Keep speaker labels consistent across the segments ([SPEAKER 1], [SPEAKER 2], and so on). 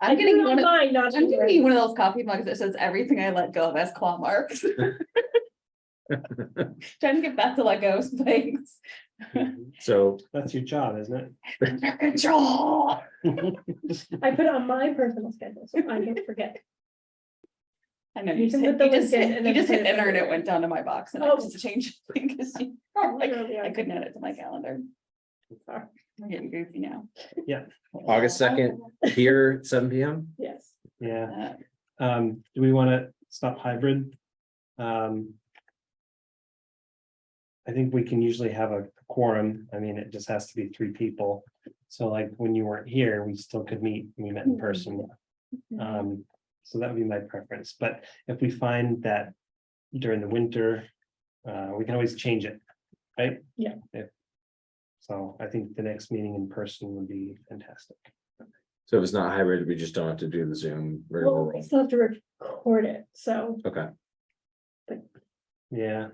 [SPEAKER 1] I'm getting one of,
[SPEAKER 2] Mine, not
[SPEAKER 1] I'm gonna get
[SPEAKER 2] yours.
[SPEAKER 1] one of those coffee mugs that says everything I let go of has claw marks. Trying to get back to let go of some things.
[SPEAKER 3] So
[SPEAKER 4] That's your job, isn't it?
[SPEAKER 1] Under control.
[SPEAKER 2] I put it on my personal schedule, so I don't forget.
[SPEAKER 1] I know,
[SPEAKER 2] You
[SPEAKER 1] you just
[SPEAKER 2] can
[SPEAKER 1] hit,
[SPEAKER 2] put the
[SPEAKER 1] you just
[SPEAKER 2] link in
[SPEAKER 1] hit-
[SPEAKER 2] and
[SPEAKER 1] you
[SPEAKER 2] then
[SPEAKER 1] just
[SPEAKER 2] put
[SPEAKER 1] hit
[SPEAKER 2] it
[SPEAKER 1] enter and it
[SPEAKER 2] everywhere.
[SPEAKER 1] went down to my box and I
[SPEAKER 2] Oh.
[SPEAKER 1] just changed. because you-
[SPEAKER 2] Literally,
[SPEAKER 1] I couldn't add it to my calendar.
[SPEAKER 2] Sorry.
[SPEAKER 1] I'm getting goofy now.
[SPEAKER 3] August second here, seven P M.
[SPEAKER 2] Yes.
[SPEAKER 4] Yeah,
[SPEAKER 1] Uh,
[SPEAKER 4] um, do we want to stop hybrid? Um. I think we can usually have a quorum. I mean, it just has to be three people. So like when you weren't here, we still could meet, we met in person.
[SPEAKER 3] Uh,
[SPEAKER 4] Um, so that would be my preference, but if we find that during the winter, uh, we can always change it, right?
[SPEAKER 2] Yeah.
[SPEAKER 4] If- So I think the next meeting in person would be fantastic.
[SPEAKER 3] So if it's not hybrid, we just don't have to do the Zoom. regular
[SPEAKER 2] Well, we
[SPEAKER 3] roll.
[SPEAKER 2] still have to record it, so
[SPEAKER 3] Okay,
[SPEAKER 4] Yeah,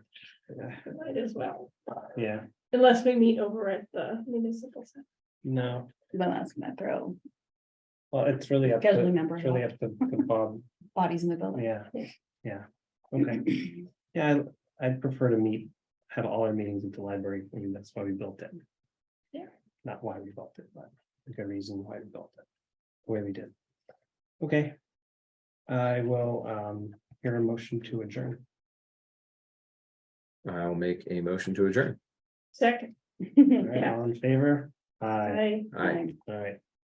[SPEAKER 2] might as well,
[SPEAKER 4] yeah,
[SPEAKER 2] unless we meet over at the municipal center.
[SPEAKER 4] no,
[SPEAKER 1] Then that's gonna throw
[SPEAKER 4] well, it's really up
[SPEAKER 1] Gotta
[SPEAKER 4] to,
[SPEAKER 1] remember
[SPEAKER 4] it's really
[SPEAKER 1] how-
[SPEAKER 4] up to to Bob,
[SPEAKER 1] bodies in the building.
[SPEAKER 4] yeah, yeah, okay. Yeah, I- I'd prefer to meet, have all our meetings at the library, I mean, that's why we built it.
[SPEAKER 2] Yeah.
[SPEAKER 4] Not why we built it, but a good reason why we built it, the way we did. Okay. I will um hear a motion to adjourn.
[SPEAKER 3] I'll make a motion to adjourn.
[SPEAKER 2] Second,
[SPEAKER 4] All right, all in favor? Aye,
[SPEAKER 2] I.
[SPEAKER 3] Aye.
[SPEAKER 4] all right,